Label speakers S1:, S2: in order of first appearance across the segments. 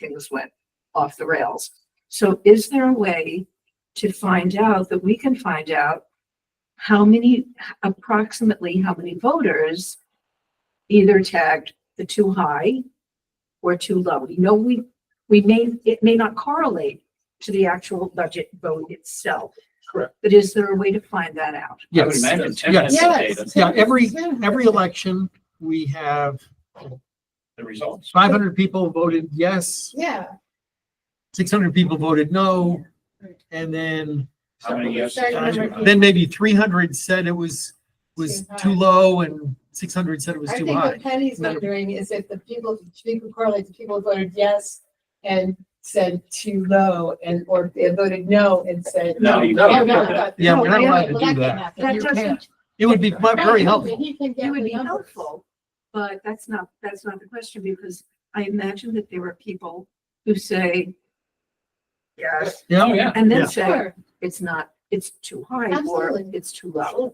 S1: things went off the rails. So is there a way to find out that we can find out how many, approximately how many voters either tagged the too high or too low? You know, we, we may, it may not correlate to the actual budget vote itself.
S2: Correct.
S1: But is there a way to find that out?
S2: I would
S3: Yes,
S2: imagine ten
S3: yes.
S2: minutes of data,
S3: Yeah, every, every election, we have
S2: the results.
S3: five hundred people voted yes,
S4: Yeah.
S3: six hundred people voted no. And then,
S2: How many yes?
S4: Sorry,
S2: how many
S4: number
S2: no?
S4: eight.
S3: then maybe three hundred said it was, was
S4: Too high.
S3: too low and six hundred said it was
S4: I
S3: too
S4: think
S3: high.
S4: what Penny's
S3: No.
S4: wondering is if the people, she could correlate the people who voted yes and said too low and, or they voted no and said.
S2: No, you
S4: Oh,
S2: don't.
S4: no, no.
S3: Yeah,
S4: No,
S3: we're not
S4: yeah,
S3: allowed to
S4: well,
S3: do
S4: can't
S3: that.
S4: happen.
S1: That
S4: You can't.
S1: doesn't,
S3: It would be mu- very helpful.
S4: He can
S1: it
S4: get
S1: would
S4: the
S1: be
S4: numbers.
S1: helpful, but that's not, that's not the question because I imagine that there were people who say yes,
S2: Oh,
S3: Yeah,
S2: yeah.
S1: and
S3: Yeah.
S1: then say,
S4: Sure.
S1: it's not, it's too high or
S4: Absolutely.
S1: it's too low.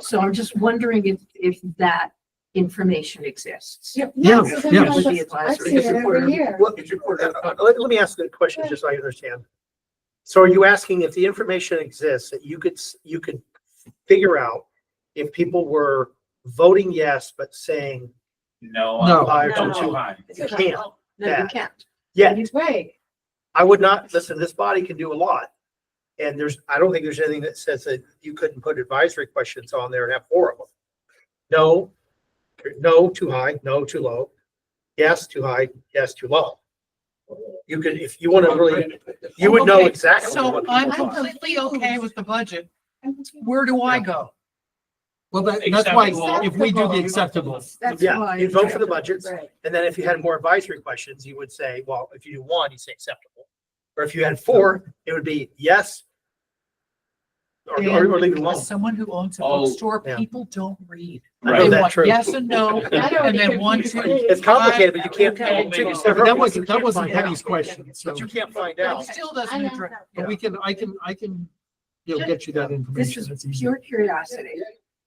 S1: So I'm just wondering if, if that information exists.
S4: Yeah.
S3: Yeah, Oh,
S4: so
S3: yeah.
S4: sometimes
S1: Would be
S4: I
S1: advisory.
S4: see it every year.
S5: Well, uh, let, let me ask the question, just so I understand. So are you asking if the information exists, that you could, s- you could figure out if people were voting yes, but saying
S2: No,
S3: No.
S2: I'm I'm
S1: No.
S2: too high.
S5: you can't?
S1: No, you can't.
S5: Yeah,
S4: Right.
S5: I would not, listen, this body can do a lot. And there's, I don't think there's anything that says that you couldn't put advisory questions on there and have four of them. No, no, too high, no, too low. Yes, too high, yes, too low. You could, if you want to really, you would know
S3: Okay,
S5: exactly.
S3: So
S5: what people
S3: I'm
S5: thought.
S3: completely okay with the budget. Where do I go? Well, that, that's
S2: that's
S3: why,
S2: why
S3: if we do the acceptable,
S1: That's
S5: Yeah,
S1: why.
S5: you'd vote for the budget,
S4: Right.
S5: and then if you had more advisory questions, you would say, well, if you do one, you'd say acceptable. Or if you had four, it would be yes. Or, or or leave it alone.
S6: As someone who owns a
S2: Oh,
S6: bookstore,
S5: yeah.
S6: people don't read.
S5: I know
S2: Right.
S6: They
S5: that
S6: want
S5: true.
S6: yes and no,
S4: I don't
S6: and then
S4: think
S6: one,
S4: it's-
S6: two.
S5: It's complicated, but you can't,
S1: Okay.
S5: you can't
S3: but
S5: separate
S3: that
S5: it,
S3: wasn't, that wasn't
S5: find out.
S3: Penny's question, so.
S5: but you can't find
S3: But
S5: out.
S3: it still
S4: I
S3: doesn't
S4: don't
S3: address,
S4: know.
S3: but we can, I can, I can, you know, get you that
S1: This
S3: information.
S1: is
S3: That's easy.
S1: pure curiosity.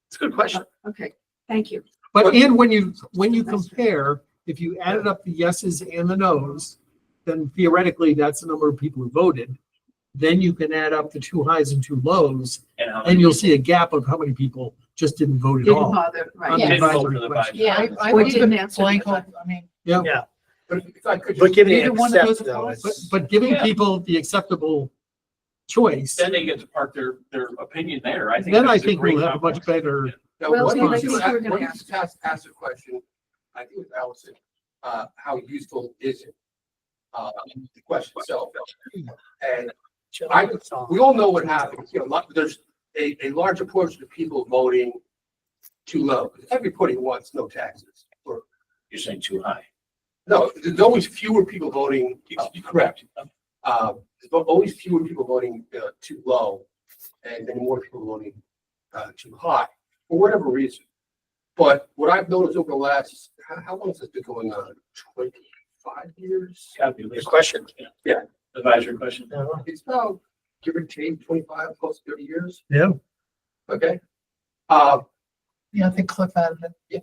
S5: It's a good question.
S1: Okay, thank you.
S3: But and when you, when you compare, if you added up the yeses and the nos, then theoretically, that's the number of people who voted. Then you can add up the two highs and two lows,
S2: And how
S3: and
S2: many
S3: you'll see a gap of how many people just didn't vote at
S1: Didn't
S3: all.
S1: bother, right?
S3: On the
S4: Yeah.
S2: didn't vote
S3: advisory
S2: for the
S3: question.
S2: budget.
S4: Yeah.
S6: I, I
S1: Or
S6: would
S1: didn't
S6: have
S1: answer the
S6: blank on,
S1: question.
S6: I mean,
S2: But if I could
S5: But
S2: just-
S5: giving
S6: Neither
S5: it
S6: one of those
S5: accept though,
S6: applies.
S3: But,
S5: it's,
S3: but giving
S2: Yeah.
S3: people the acceptable choice,
S2: Then they get to park their, their opinion there. I think.
S3: then I
S2: that's a
S3: think
S2: great
S3: we'll have a much
S2: compromise.
S3: better,
S7: Now,
S1: Well,
S7: what
S3: so
S7: did
S3: let's
S7: you,
S1: see what we're
S7: ask-
S1: gonna
S7: what did
S1: ask.
S7: you task, ask the question, I think it was Allison, uh, how useful is it? Uh, the question itself. And I, we all know what happens, you know, lot- there's a, a larger portion of people voting too low. Everybody wants no taxes, or,
S2: You're saying too high.
S7: no, there's always fewer people voting, uh, correct. Uh, there's always fewer people voting, uh, too low, and then more people voting, uh, too high, for whatever reason. But what I've noticed over the last, how, how long has this been going on? Twenty-five years?
S2: It's gotta be at
S5: good
S2: least-
S5: question.
S2: Advisory question.
S7: It's about give or take twenty-five plus thirty years,
S3: yeah.
S7: okay? Uh,
S6: you know, the clip out of the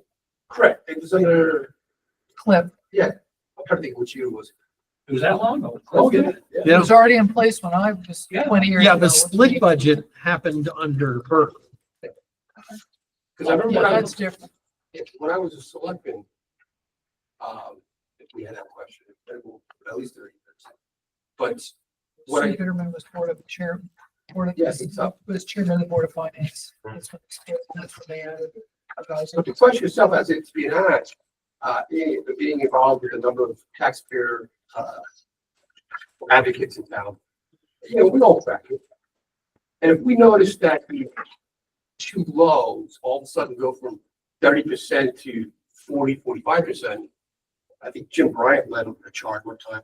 S7: correct, it was under,
S6: clip.
S7: I'm trying to think which year it was.
S2: It was that long ago.
S7: Let's get it.
S3: Oh, Yeah.
S6: It was already in place when I was
S2: Yeah.
S6: twenty years ago.
S3: Yeah, the split
S6: Yeah,
S3: budget happened under her.
S7: Cause I remember when I was
S6: That's different.
S7: if- when I was a selectman, um, if we had that question, it will- at least thirty years. But what I,
S6: Peterman was board of chair, board of,
S7: Yes, it's up.
S6: was chairman of the board of finance. That's what that's what they uh, added.
S7: so the question yourself as it's being asked, uh, being, being involved with a number of taxpayer, uh, advocates in town, you know, we all track it. And if we notice that the two lows all of a sudden go from thirty percent to 40, 45 percent, I think Jim Bryant led a charge one time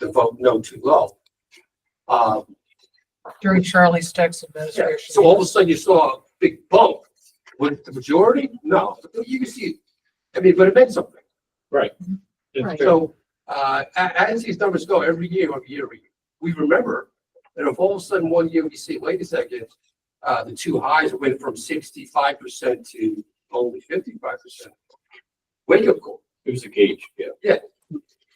S7: to vote no too low. Uh,
S6: During Charlie Steck's
S7: yeah,
S6: administration.
S7: so all of a sudden you saw a big bump. Was it the majority? No, But you can see, I mean, but it meant something.
S2: It's-
S7: So, uh, a- as these numbers go, every year, every year, we- we remember. And if all of a sudden one year we see, wait a second, uh, the two highs went from sixty-five percent to only fifty-five percent. Wake up call.
S2: It was a gauge. Yeah.